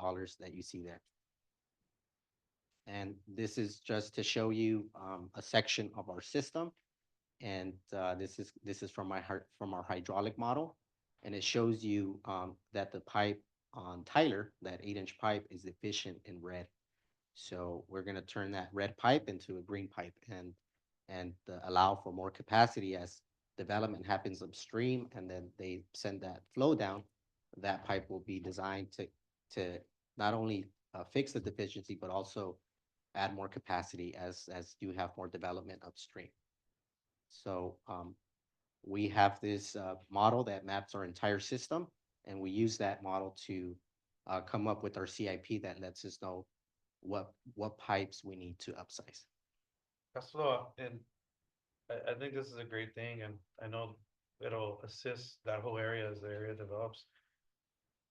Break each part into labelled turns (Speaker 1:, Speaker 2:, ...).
Speaker 1: dollars that you see there. And this is just to show you um a section of our system. And uh this is, this is from my heart, from our hydraulic model. And it shows you um that the pipe on Tyler, that eight inch pipe is efficient in red. So we're gonna turn that red pipe into a green pipe and and uh, allow for more capacity as development happens upstream and then they send that flow down. That pipe will be designed to to not only uh, fix the deficiency, but also add more capacity as as you have more development upstream. So um we have this uh model that maps our entire system and we use that model to uh come up with our CIP that lets us know what what pipes we need to upsize.
Speaker 2: Costello, and I, I think this is a great thing, and I know it'll assist that whole area as the area develops.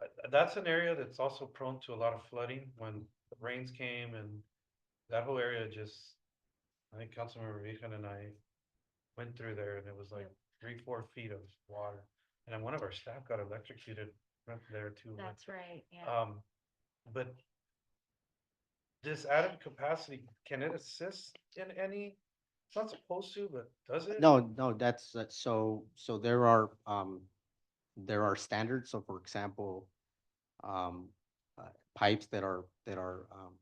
Speaker 2: Uh, uh, That's an area that's also prone to a lot of flooding when the rains came and that whole area just, I think Councilmember Vivian and I went through there and it was like three, four feet of water. And then one of our staff got electrocuted right there too. with-
Speaker 3: That's right, yeah.
Speaker 2: Um, but this added capacity, can it assist in any? It's not supposed to, but does it?
Speaker 1: No, no, that's, that's- so, so there are, um, there are standards, so for example, um, uh, pipes that are, that are, um,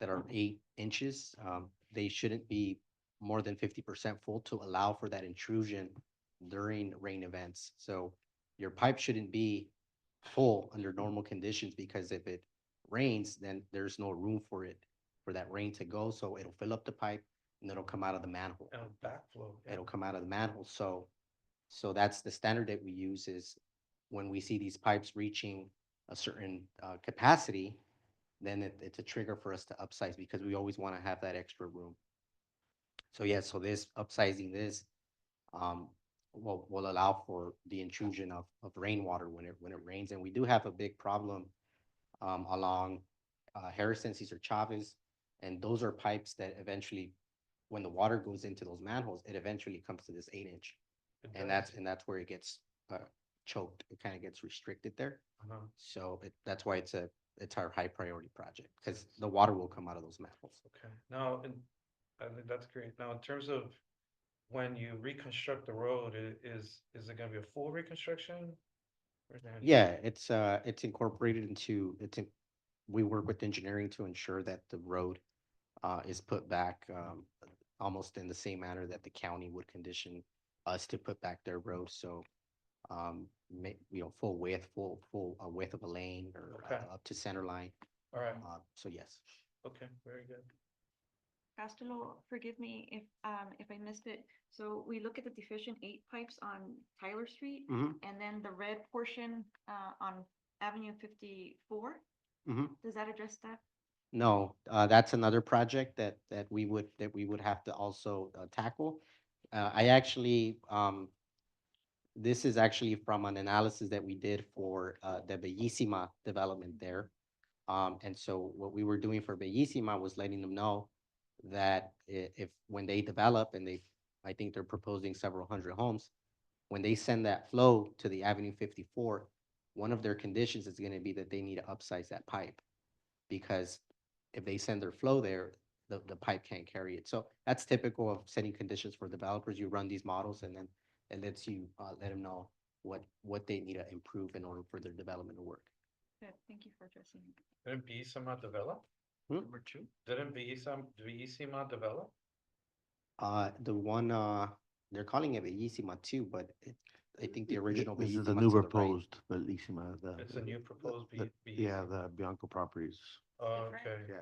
Speaker 1: that are eight inches, um, they shouldn't be more than fifty percent full to allow for that intrusion during rain events. So your pipe shouldn't be full under normal conditions, because if it rains, then there's no room for it, for that rain to go, so it'll fill up the pipe, and it'll come out of the manhole
Speaker 2: And a backflow. yeah.
Speaker 1: it'll come out of the manhole, so, so that's the standard that we use is when we see these pipes reaching a certain, uh, capacity, then it, it's a trigger for us to upsize because we always want to have that extra room. So yeah, so this upsizing this, um, will, will allow for the intrusion of, of rainwater when it, when it rains. And we do have a big problem, um, along, uh, Harrison, Cesar Chavez. And those are pipes that eventually when the water goes into those manholes, it eventually comes to this eight inch.
Speaker 2: It
Speaker 1: And
Speaker 2: does.
Speaker 1: that's, and that's where it gets uh, choked. It kind of gets restricted there.
Speaker 2: Uh-huh.
Speaker 1: So it, that's why it's a, it's our high priority project because the water will come out of those manholes.
Speaker 2: Okay, now, and I think that's great. Now, in terms of when you reconstruct the road, i- is, is it gonna be a full reconstruction? Or is it gonna be-
Speaker 1: Yeah, it's, uh, it's incorporated into, it's, in- we work with engineering to ensure that the road uh, is put back um, almost in the same manner that the county would condition us to put back their road. So um, ma- you know, full width, full, full uh, width of a lane or uh,
Speaker 2: Okay.
Speaker 1: up to center line.
Speaker 2: All right,
Speaker 1: Uh, so yes.
Speaker 2: okay, very good.
Speaker 3: Costello, forgive me if, um, if I missed it. So we look at the deficient eight pipes on Tyler Street
Speaker 1: Mhm,
Speaker 3: and then the red portion, uh, on Avenue fifty-four.
Speaker 1: mhm.
Speaker 3: Does that address that?
Speaker 1: No, uh, that's another project that, that we would, that we would have to also uh, tackle. Uh, I actually, um, this is actually from an analysis that we did for, uh, the Bellissima development there. Um, and so what we were doing for Bellissima was letting them know that i- if, when they develop and they, I think they're proposing several hundred homes, when they send that flow to the Avenue fifty-four, one of their conditions is gonna be that they need to upsize that pipe. Because if they send their flow there, the, the pipe can't carry it. So that's typical of setting conditions for developers. You run these models and then it lets you, uh, let them know what, what they need to improve in order for their development to work.
Speaker 3: Good, thank you for addressing. it.
Speaker 2: Didn't E Bellissima develop?
Speaker 1: Hmm?
Speaker 2: Number two. Didn't E Bellissima, Bellissima develop?
Speaker 1: Uh, the one, uh, they're calling it Bellissima too, but it, I think the
Speaker 4: Th-
Speaker 1: original.
Speaker 4: This is the
Speaker 1: Bellissima
Speaker 4: new
Speaker 1: to right.
Speaker 4: proposed, but Lissima, the.
Speaker 2: It's a new
Speaker 4: the-
Speaker 2: proposed E
Speaker 4: the-
Speaker 2: Be-
Speaker 4: Yeah,
Speaker 2: Bellissima.
Speaker 4: the Bianco properties.
Speaker 2: Oh,
Speaker 3: Different?
Speaker 2: Okay.
Speaker 4: Yeah.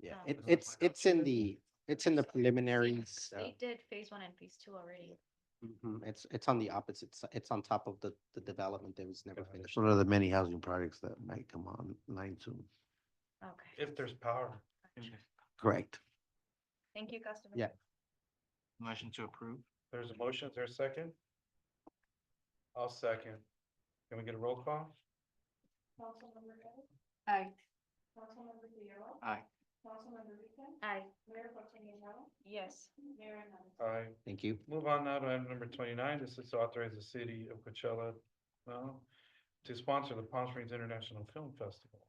Speaker 1: Yeah,
Speaker 3: Oh.
Speaker 1: it, it's, it's in the, it's in the
Speaker 3: So,
Speaker 1: preliminaries. uh,
Speaker 3: They did phase one and phase two already.
Speaker 1: mhm, It's, it's on the opposite side. It's on top of the, the development that was never
Speaker 2: Got it.
Speaker 1: finished.
Speaker 4: It's one of the many housing projects that might come online soon.
Speaker 3: Okay.
Speaker 2: If there's power.
Speaker 4: Correct.
Speaker 3: Thank you, Costello.
Speaker 1: Yeah.
Speaker 5: Motion to approve?
Speaker 2: There's a motion, is there a second? I'll second. Can we get a roll call?
Speaker 3: Councilmember Ray? Aye. Councilmember Fierro?
Speaker 5: Aye.
Speaker 3: Councilmember Rican? Aye. Mayor Protem Guerrero? Yes. Mayor Hernandez?
Speaker 2: Aye.
Speaker 1: Thank you.
Speaker 2: Move on now to item number twenty-nine. This is to authorize the city of Coachella, no, to sponsor the Palm Springs International Film Festival.